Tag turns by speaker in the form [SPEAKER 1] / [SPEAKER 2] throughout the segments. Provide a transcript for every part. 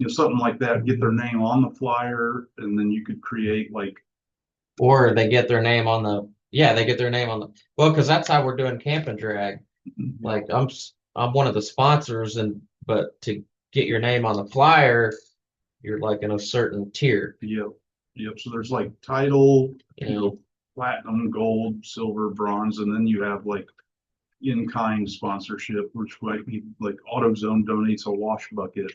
[SPEAKER 1] know, something like that, get their name on the flyer, and then you could create like,
[SPEAKER 2] Or they get their name on the, yeah, they get their name on the, well, because that's how we're doing Camp and Drag. Like I'm, s- I'm one of the sponsors and, but to get your name on the flyer, you're like in a certain tier,
[SPEAKER 1] yep, yep, so there's like title,
[SPEAKER 2] you
[SPEAKER 1] you
[SPEAKER 2] know?
[SPEAKER 1] know, platinum, gold, silver, bronze, and then you have like in-kind sponsorship, which might be like AutoZone donates a wash bucket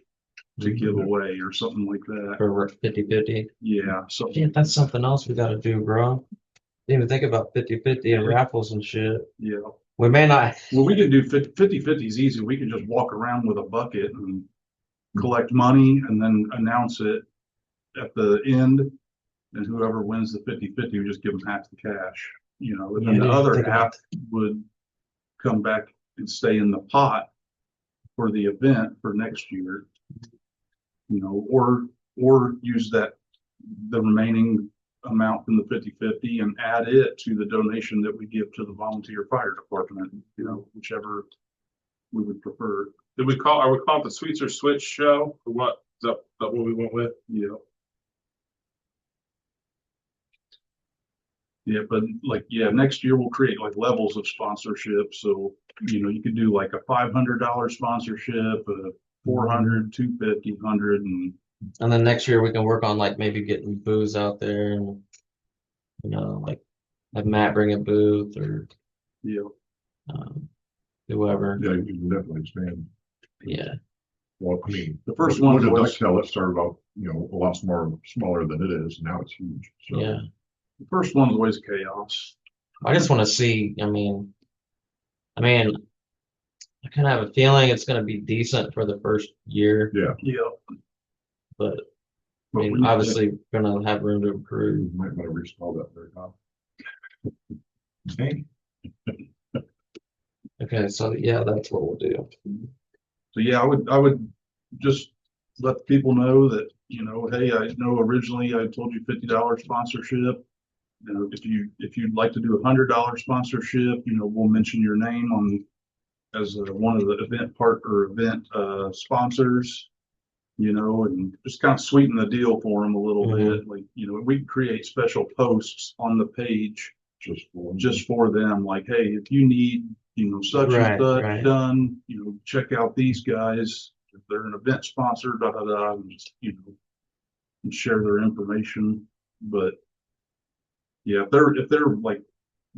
[SPEAKER 1] to give away or something like that.
[SPEAKER 2] For fifty fifty.
[SPEAKER 1] Yeah, so,
[SPEAKER 2] Yeah, that's something else we gotta do, bro. Didn't even think about fifty fifty and raffles and shit.
[SPEAKER 1] yeah.
[SPEAKER 2] We may not,
[SPEAKER 1] Well, we could do fif- fifty fifties easy. We could just walk around with a bucket and collect money and then announce it at the end. And whoever wins the fifty fifty, we just give them half the cash, you know, and then the
[SPEAKER 2] Yeah,
[SPEAKER 1] other
[SPEAKER 2] take it out.
[SPEAKER 1] half would come back and stay in the pot for the event for next year. You know, or, or use that, the remaining amount from the fifty fifty and add it to the donation that we give to the volunteer fire department, you know, whichever we would prefer,
[SPEAKER 3] Did we call, are we calling it the Sweets or Switch show? Or what? Is that, that what we went with?
[SPEAKER 1] you know. Yeah, but like, yeah, next year we'll create like levels of sponsorship, so, you know, you could do like a five hundred dollar sponsorship, a four hundred, two fifty, hundred, and
[SPEAKER 2] and then next year we can work on like maybe getting booze out there and. You know, like, have Matt bring a booth or,
[SPEAKER 1] you know.
[SPEAKER 2] um, whoever,
[SPEAKER 4] Yeah, you can definitely expand.
[SPEAKER 2] yeah.
[SPEAKER 4] Well, I mean.
[SPEAKER 1] The first
[SPEAKER 4] when-
[SPEAKER 1] one
[SPEAKER 4] when did
[SPEAKER 1] was-
[SPEAKER 4] Duxtel, it started off, you know, a lot smaller, smaller than it is. Now it's huge. So
[SPEAKER 2] Yeah,
[SPEAKER 1] The first one's always chaos.
[SPEAKER 2] I just want to see. I mean, I mean, I kind of have a feeling it's going to be decent for the first year,
[SPEAKER 1] Yeah.
[SPEAKER 2] but I
[SPEAKER 1] But
[SPEAKER 2] mean,
[SPEAKER 1] we-
[SPEAKER 2] obviously, going to have room to improve.
[SPEAKER 4] You might want to reinstall that very top. Okay.
[SPEAKER 2] Okay, so yeah, that's what we'll do.
[SPEAKER 1] So yeah, I would, I would just let people know that, you know, hey, I know originally I told you fifty dollar sponsorship. You know, if you, if you'd like to do a hundred dollar sponsorship, you know, we'll mention your name on as uh, one of the event part or event uh sponsors. You know, and just kind of sweeten the deal for them a little
[SPEAKER 2] Mhm.
[SPEAKER 1] bit, like, you know, we can create special posts on the page
[SPEAKER 4] Just. for-
[SPEAKER 1] just for them, like, hey, if you need, you know, such
[SPEAKER 2] Right,
[SPEAKER 1] and such
[SPEAKER 2] right.
[SPEAKER 1] done, you know, check out these guys. If they're an event sponsor, da da da, and just, you know, and share their information, but yeah, if they're, if they're like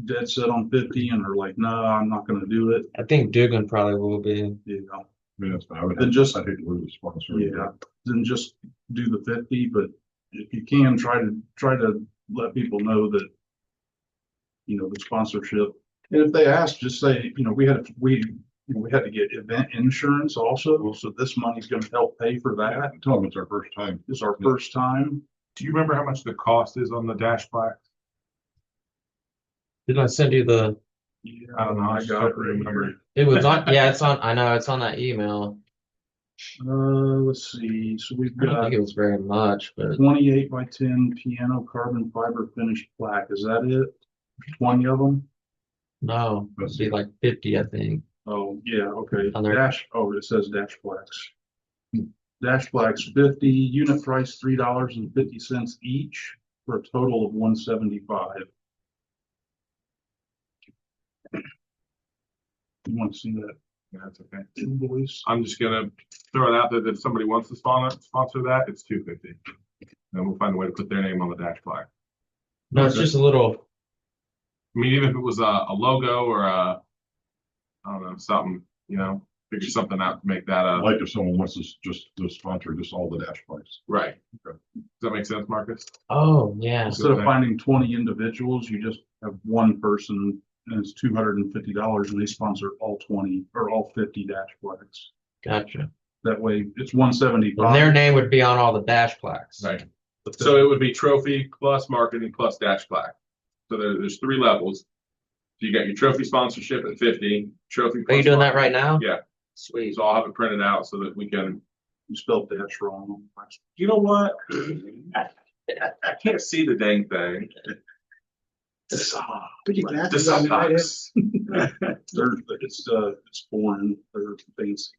[SPEAKER 1] dead set on fifty and are like, no, I'm not gonna do it,
[SPEAKER 2] I think Dugan probably will be.
[SPEAKER 1] you know,
[SPEAKER 4] I mean, that's, I would.
[SPEAKER 1] Then just-
[SPEAKER 4] I hate to lose a sponsor.
[SPEAKER 1] yeah, then just do the fifty, but if you can, try to, try to let people know that you know, the sponsorship. And if they ask, just say, you know, we had, we, you know, we had to get event insurance also, so this money's gonna help pay for that.
[SPEAKER 4] Tell them it's our first time.
[SPEAKER 1] This is our first time.
[SPEAKER 3] Do you remember how much the cost is on the dash black?
[SPEAKER 2] Did I send you the?
[SPEAKER 3] I don't know.
[SPEAKER 1] I
[SPEAKER 3] just
[SPEAKER 1] got
[SPEAKER 3] don't
[SPEAKER 1] it right here.
[SPEAKER 2] It was on. Yeah, it's on. I know it's on that email.
[SPEAKER 1] Uh, let's see, so we've
[SPEAKER 2] I don't
[SPEAKER 1] got
[SPEAKER 2] think it was very much, but
[SPEAKER 1] twenty-eight by ten piano carbon fiber finished plaque. Is that it? Twenty of them?
[SPEAKER 2] no, it'd be like fifty, I think.
[SPEAKER 1] Oh, yeah, okay.
[SPEAKER 2] On there.
[SPEAKER 1] Dash, oh, it says dash blacks. Dash blacks fifty, unit price three dollars and fifty cents each for a total of one seventy-five. You want to see that
[SPEAKER 3] Yeah, That's okay.
[SPEAKER 1] invoice?
[SPEAKER 3] I'm just gonna throw it out there that if somebody wants to sponsor, sponsor that, it's two fifty. Then we'll find a way to put their name on the dash black.
[SPEAKER 2] No, it's
[SPEAKER 1] Okay.
[SPEAKER 2] just a little.
[SPEAKER 3] I mean, even if it was a, a logo or a, I don't know, something, you know, figure something out to make that
[SPEAKER 4] I'd
[SPEAKER 3] a,
[SPEAKER 4] like if someone wants to s- just, to sponsor just all the dash bikes.
[SPEAKER 3] right. Does
[SPEAKER 4] Okay.
[SPEAKER 3] that make sense, Marcus?
[SPEAKER 2] Oh yeah.
[SPEAKER 1] Instead of finding twenty individuals, you just have one person and it's two hundred and fifty dollars and they sponsor all twenty or all fifty dash blacks.
[SPEAKER 2] Gotcha.
[SPEAKER 1] That way it's one
[SPEAKER 2] And their
[SPEAKER 1] seventy-five.
[SPEAKER 2] name would be on all the dash plaques.
[SPEAKER 3] Right. So it would be trophy plus marketing plus dash plaque. So there, there's three levels. So you got your trophy sponsorship at fifty, trophy.
[SPEAKER 2] Are you
[SPEAKER 3] plus
[SPEAKER 2] doing that right
[SPEAKER 3] marketing.
[SPEAKER 2] now?
[SPEAKER 3] Yeah.
[SPEAKER 2] Sweet.
[SPEAKER 3] So I'll have it printed out so that we can,
[SPEAKER 1] You spelled dash wrong.
[SPEAKER 3] you know what? I can't see the dang thing.
[SPEAKER 5] Put your
[SPEAKER 3] The
[SPEAKER 5] glasses on, right?
[SPEAKER 3] soapbox.
[SPEAKER 1] They're, it's, uh, it's foreign, they're fancy.